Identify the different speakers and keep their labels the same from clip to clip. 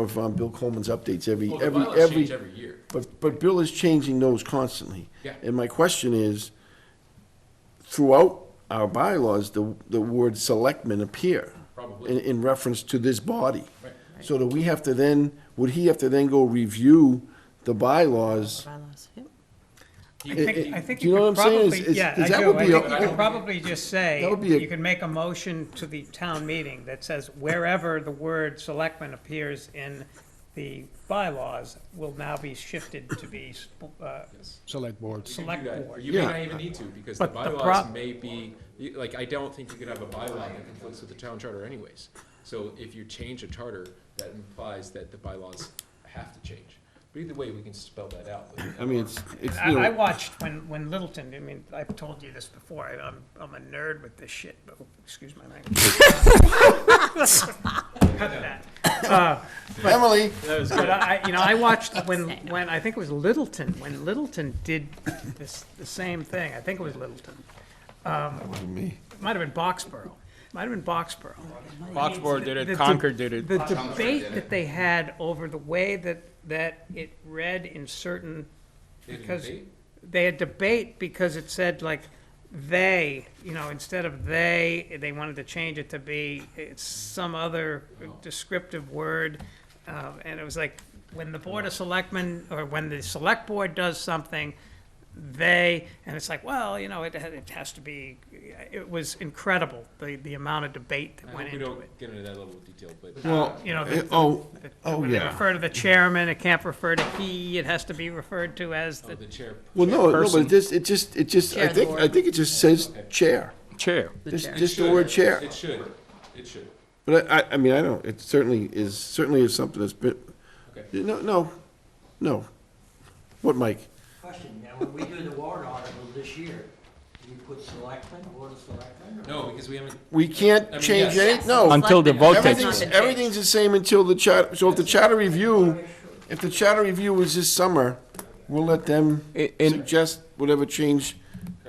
Speaker 1: of um, Bill Coleman's updates every,
Speaker 2: Well, the
Speaker 1: every,
Speaker 2: bylaws change
Speaker 1: every,
Speaker 2: every year.
Speaker 1: but, but Bill is changing those constantly.
Speaker 2: Yeah.
Speaker 1: And my question is, throughout our bylaws, the, the word selectmen appear.
Speaker 2: Probably.
Speaker 1: In, in reference to this body.
Speaker 2: Right.
Speaker 1: So do we have to then, would he have to then go review the bylaws?
Speaker 3: bylaws, yep.
Speaker 2: He-
Speaker 4: I
Speaker 1: it-
Speaker 4: think, I
Speaker 1: it-
Speaker 4: think
Speaker 1: do you
Speaker 4: you
Speaker 1: know
Speaker 4: could
Speaker 1: what I'm saying? Is-
Speaker 4: probably,
Speaker 1: is-
Speaker 4: yeah,
Speaker 1: is
Speaker 4: I
Speaker 1: that
Speaker 4: do.
Speaker 1: would
Speaker 4: I
Speaker 1: be a-
Speaker 4: think you could probably just say,
Speaker 1: That would be a-
Speaker 4: you could make a motion to the town meeting that says wherever the word selectmen appears in the bylaws will now be shifted to be, uh,
Speaker 5: select boards.
Speaker 2: You can
Speaker 4: select
Speaker 2: do that, or
Speaker 4: board.
Speaker 2: You may
Speaker 1: Yeah.
Speaker 2: not even need to, because the
Speaker 4: But the
Speaker 2: bylaws
Speaker 4: prob-
Speaker 2: may be, you- like, I don't think you could have a bylaw that conflicts with the town charter anyways. So if you change a charter, that implies that the bylaws have to change. But either way, we can spell that out.
Speaker 1: I mean, it's, it's,
Speaker 4: I,
Speaker 1: you
Speaker 4: I
Speaker 1: know,
Speaker 4: watched when, when Littleton, I mean, I've told you this before, I- I'm, I'm a nerd with this shit, but, oh, excuse my language. Cut that.
Speaker 1: Emily,
Speaker 4: But I, you know, I watched when, when, I think it was Littleton, when Littleton did this, the same thing, I think it was Littleton.
Speaker 1: me.
Speaker 4: It might have been Boxborough, might have been Boxborough.
Speaker 6: Foxborough did
Speaker 4: The-
Speaker 6: it,
Speaker 4: the-
Speaker 6: Concord did it.
Speaker 4: The debate that they had over the way that, that it read in certain, because they had debate because it said like, they, you know, instead of they, they wanted to change it to be, it's some other descriptive word. Um, and it was like, when the Board of Selectmen, or when the Select Board does something, they, and it's like, well, you know, it, it has to be, it was incredible, the, the amount of debate
Speaker 2: I
Speaker 4: that went
Speaker 2: hope we
Speaker 4: into it
Speaker 2: don't get into that level of detail, but
Speaker 1: well,
Speaker 4: you know,
Speaker 1: eh,
Speaker 4: the-
Speaker 1: oh,
Speaker 4: that
Speaker 1: oh,
Speaker 4: When they
Speaker 1: yeah.
Speaker 4: refer to the chairman, it can't refer to he, it has to be referred to as
Speaker 2: oh,
Speaker 4: the,
Speaker 2: the chair,
Speaker 1: Well, no, no, but
Speaker 6: Chairperson.
Speaker 1: it just, it just, it just, I
Speaker 3: Chair of the
Speaker 1: think, I
Speaker 3: board.
Speaker 1: think it just says chair.
Speaker 6: Chair.
Speaker 3: The
Speaker 1: Just,
Speaker 3: chair.
Speaker 1: just the word chair.
Speaker 2: it should, it should.
Speaker 1: But I, I, I mean, I don't, it certainly is, certainly is something that's been,
Speaker 2: Okay.
Speaker 1: no, no, no. What, Mike?
Speaker 7: Question, now, when we do the warrant article this year, do you put selectmen, board of selectmen? or-
Speaker 2: No, because we haven't,
Speaker 1: We
Speaker 2: I mean,
Speaker 1: can't change
Speaker 2: yes.
Speaker 1: any, no.
Speaker 6: Until the vote takes
Speaker 1: Everything's, everything's the same until the charter, so if the charter review, if the charter review is this summer, we'll let them
Speaker 6: I- and-
Speaker 1: suggest whatever change,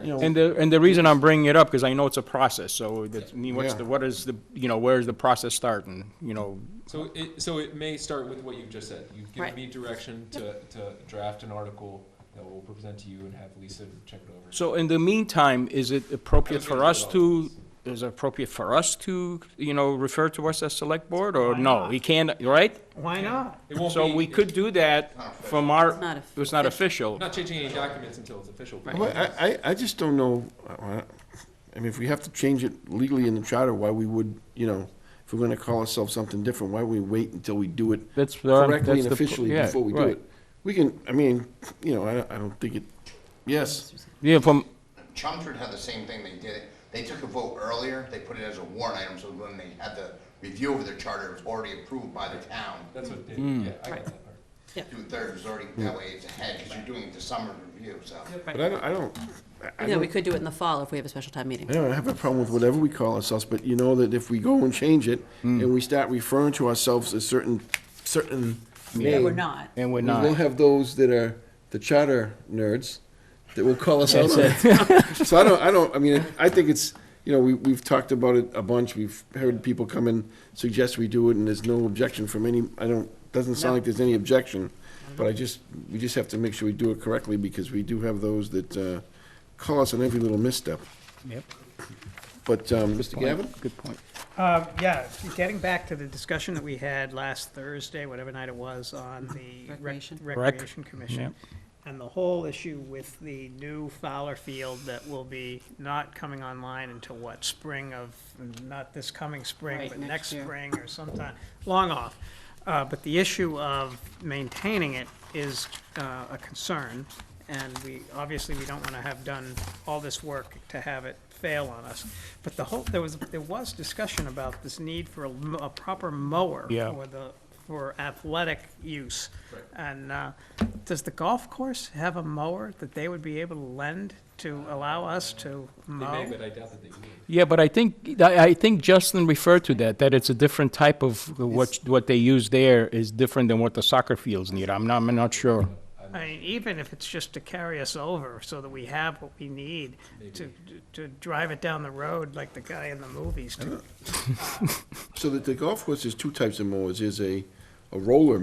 Speaker 1: you know.
Speaker 6: And the, and the reason I'm bringing it up, because I know it's a process, so that's, I mean, what's
Speaker 1: Yeah.
Speaker 6: the, what is the, you know, where's the process starting, you know?
Speaker 2: so it, so it may start with what you've just said. You've given
Speaker 3: Right.
Speaker 2: me direction to, to draft an article that we'll present to you and have Lisa check it over.
Speaker 6: So in the meantime, is it appropriate
Speaker 2: I was
Speaker 6: for
Speaker 2: gonna
Speaker 6: us
Speaker 2: do all
Speaker 6: to, is it appropriate for us to, you know, refer to us as select board, or no? We can't, right?
Speaker 4: why not?
Speaker 2: It won't
Speaker 6: So
Speaker 2: be-
Speaker 6: we could do that from our,
Speaker 3: not official.
Speaker 6: it's not official.
Speaker 2: I'm not changing any documents until it's official. but-
Speaker 1: Well, I, I, I just don't know, I I mean, if we have to change it legally in the charter, why we would, you know, if we're gonna call ourselves something different, why we wait until we do it
Speaker 6: That's the-
Speaker 1: correctly
Speaker 6: that's
Speaker 1: and
Speaker 6: the po-
Speaker 1: officially
Speaker 6: yeah,
Speaker 1: before we do
Speaker 6: right.
Speaker 1: it? We can, I mean, you know, I, don't- I don't think it, yes,
Speaker 6: Yeah, from,
Speaker 8: Chelmsford had the same thing, they did it, they took a vote earlier, they put it as a warrant item, so when they had the review of their charter, it was already approved by the town.
Speaker 2: That's what, it
Speaker 6: Hmm.
Speaker 2: did. yeah, I got that part.
Speaker 8: Two-thirds was already, that way it's ahead, because you're doing it to summer review, so.
Speaker 1: but I don't, I don't, I- I
Speaker 3: Yeah,
Speaker 1: don't,
Speaker 3: we could do it in the fall if we have a special time meeting.
Speaker 1: I don't have a problem with whatever we call ourselves, but you know that if we go and change it,
Speaker 6: Hmm.
Speaker 1: and we start referring to ourselves as certain, certain
Speaker 3: Yeah,
Speaker 1: name.
Speaker 3: we're not.
Speaker 6: and we're
Speaker 1: We will
Speaker 6: not.
Speaker 1: have those that are the charter nerds that will call us out on it. So I don't, I don't, I mean, I think it's, you know, we, we've talked about it a bunch. We've heard people come and suggest we do it and there's no objection from any, I don't, doesn't sound like there's any objection. But I just, we just have to make sure we do it correctly because we do have those that, uh, call us on every little misstep.
Speaker 6: Yep.
Speaker 1: But, um, Mr. Gavin?
Speaker 6: Good point.
Speaker 4: Um, yeah, getting back to the discussion that we had last Thursday, whatever night it was, on the Rec-
Speaker 3: Recreation.
Speaker 4: Recreation Commission. And the whole issue with the new Fowler Field that will be not coming online until what, spring of, not this coming spring,
Speaker 3: Right,
Speaker 4: but
Speaker 3: next
Speaker 4: next
Speaker 3: year.
Speaker 4: spring or sometime, long off. Uh, but the issue of maintaining it is, uh, a concern. And we, obviously, we don't wanna have done all this work to have it fail on us. But the whole, there was, there was discussion about this need for a, m- a proper mower
Speaker 6: Yeah.
Speaker 4: for the, for athletic use. And, uh, does the golf course have a mower that they would be able to lend to allow us to
Speaker 2: They
Speaker 4: mow?
Speaker 2: may, but I doubt that they will.
Speaker 6: Yeah, but I think, I I think Justin referred to that, that it's a different type of, what, what they use there is different than what the soccer fields need. I'm not, I'm not sure.
Speaker 4: I mean, even if it's just to carry us over so that we have what we need to, to drive it down the road like the guy in the movies do.
Speaker 1: So that the golf course, there's two types of mowers. There's a a roller